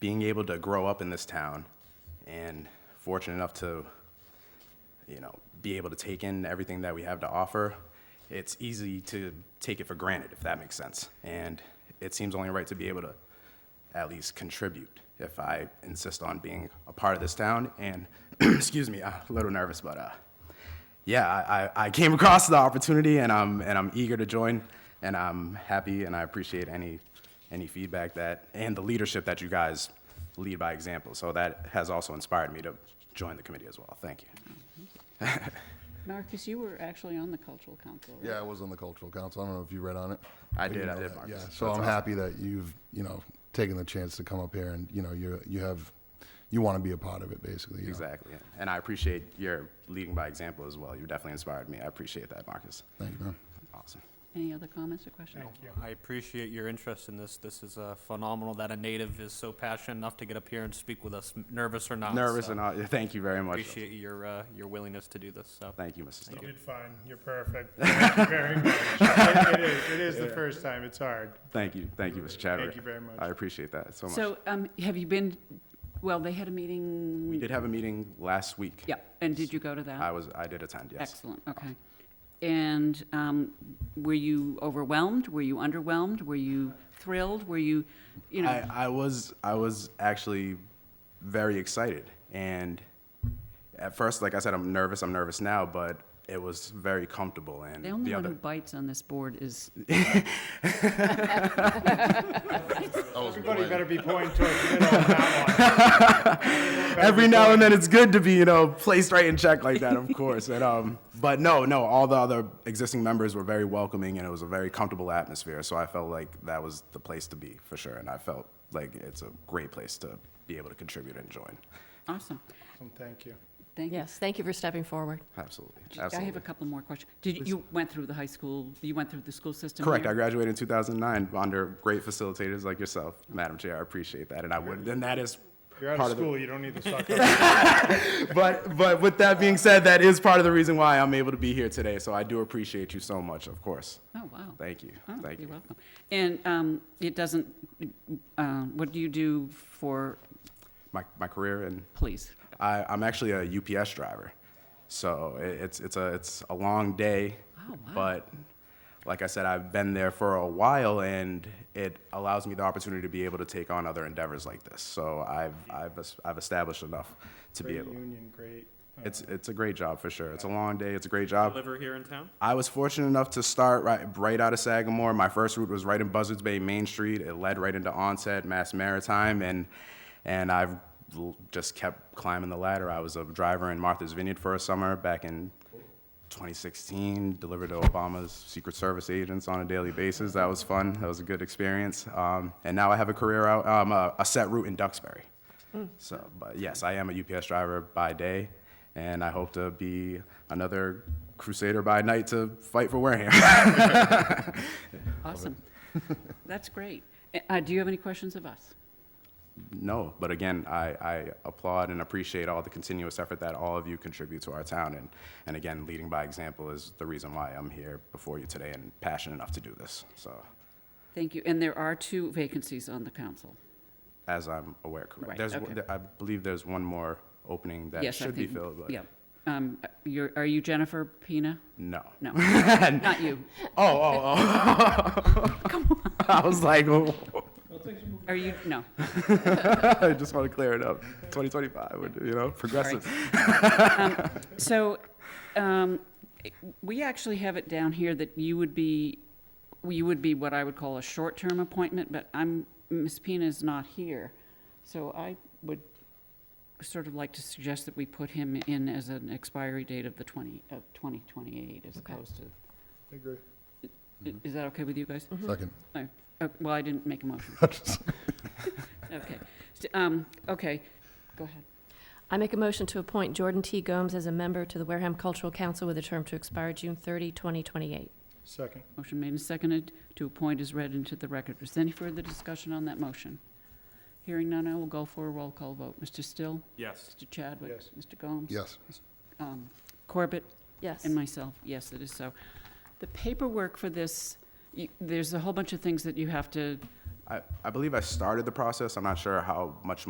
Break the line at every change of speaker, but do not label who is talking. being able to grow up in this town and fortunate enough to, you know, be able to take in everything that we have to offer, it's easy to take it for granted, if that makes sense. And it seems only right to be able to at least contribute if I insist on being a part of this town. And, excuse me, I'm a little nervous, but, uh, yeah, I, I- I came across the opportunity and I'm, and I'm eager to join and I'm happy and I appreciate any, any feedback that, and the leadership that you guys lead by example. So that has also inspired me to join the committee as well. Thank you.
Marcus, you were actually on the cultural council. right?
Yeah, I was on the cultural council. I don't know if you read on it.
I
But you
did, I
know
did,
that,
Marcus.
Yeah,
That's
so I'm
awesome.
happy that you've, you know, taken the chance to come up here and, you know, you you have, you want to be a part of it, basically. you know.
Exactly. And I appreciate your leading by example as well. You definitely inspired me. I appreciate that, Marcus.
Thank you, man.
Awesome.
Any other comments or questions?
I appreciate your interest in this. This is uh, phenomenal that a native is so passionate enough to get up here and speak with us, m- nervous or not.
Nervous
so
and all, thank you very much.
Appreciate your, uh, your willingness to do this, so.
Thank you, Mrs.
You
Stone.
did fine. You're perfect. Thank you very much. It- It is, it is the first time. It's hard.
Thank you, thank you, Mr. Chadwick.
you very much.
I appreciate that so much.
So, um, have you been, well, they had a meeting?
We did have a meeting last week.
Yeah, and did you go to
I
that?
was, I did attend, yes.
Excellent, okay. And, um, were you overwhelmed? Were you underwhelmed? Were you thrilled? Were you, you know,
I, I was I was actually very excited, and at first, like I said, I'm nervous. I'm nervous now, but it was very comfortable. And
the only one
other,
who bites on this board is,
Everybody better be pointing towards the middle on that one.
every now and then, it's good to be you know placed right in check like that, of course. And um, but no, no, all the other existing members were very welcoming, and it was a very comfortable atmosphere. So I felt like that was the place to be for sure, and I felt like it's a great place to be able to contribute and join.
awesome,
Awesome, Thank you.
thank you.
Yes, thank you for stepping forward.
Absolutely,
I
absolutely.
have a couple more questions. Did, you- you went through the high school, you went through the school system
Correct.
here?
I graduated in 2009 under great facilitators like yourself, Madam Chair. I appreciate that, and I would. And that is
You're out
part of
of
the-
school. You don't need to suck up.
But but with that being said, that is part of the reason why I'm able to be here today. So I do appreciate you so much, of course.
Oh, wow.
Thank you.
Oh,
Thank you.
You're welcome. And um, it doesn't, uh, what do you do for
My my career and
police?
I, I'm actually a UPS driver, so it, it's it's a it's a long day.
Oh, wow.
But like I said, I've been there for a while, and it allows me the opportunity to be able to take on other endeavors like this. So I've I've es- I've established enough to
Great
be able.
union, great. uh,
It's it's a great job for sure. It's a long day. It's a great job.
Deliver here in town?
I was fortunate enough to start right right out of Sagamore. My first route was right in Buzzards Bay Main Street. It led right into Onset Mass Maritime, and and I've l- just kept climbing the ladder. I was a driver in Martha's Vineyard for a summer back in 2016. Delivered to Obama's Secret Service agents on a daily basis. That was fun. That was a good experience. Um, and now I have a career out um, a, a set route in Duxbury. So, but yes, I am a UPS driver by day, and I hope to be another crusader by night to fight for Wareham.
Awesome. That's great. Uh, Do you have any questions of us?
no, but again, I, I applaud and appreciate all the continuous effort that all of you contribute to our town, and, and again, leading by example is the reason why I'm here before you today and passionate enough to do this. So,
Thank you. And there are two vacancies on the council.
as I'm aware, correct.
Right,
there's,
okay.
I believe there's one more opening that
Yes, I
should be
think-
filled, but
Yeah. Um, You're, are you Jennifer Pina?
no.
No, not you.
Oh, oh, oh! I was like,
Are you, no.
I just want to clear it up. 2025, we're, you know, progressive.
So, um, we actually have it down here that you would be, you would be what I would call a short-term appointment, but I'm, Ms. Pina's not here. So I would sort of like to suggest that we put him in as an expiry date of the 20, of 2028 as
Okay.
opposed to,
I agree.
i- is that okay with you guys?
Second.
Uh, Well, I didn't make a motion. Okay. S- um, Okay, go ahead.
I make a motion to appoint Jordan T. Gomes as a member to the Wareham Cultural Council with a term to expire June 30, 2028.
Second.
Motion made and seconded to appoint is read into the record. Is there any further discussion on that motion? Hearing none, I will go for a roll call vote. Mr. Still?
Yes.
Mr. Chadwick?
Yes.
Mr. Gomes?
Yes.
Um, Corbett?
Yes.
And myself, yes, it is so. The paperwork for this, you- there's a whole bunch of things that you have to
I, I believe I started the process. I'm not sure how much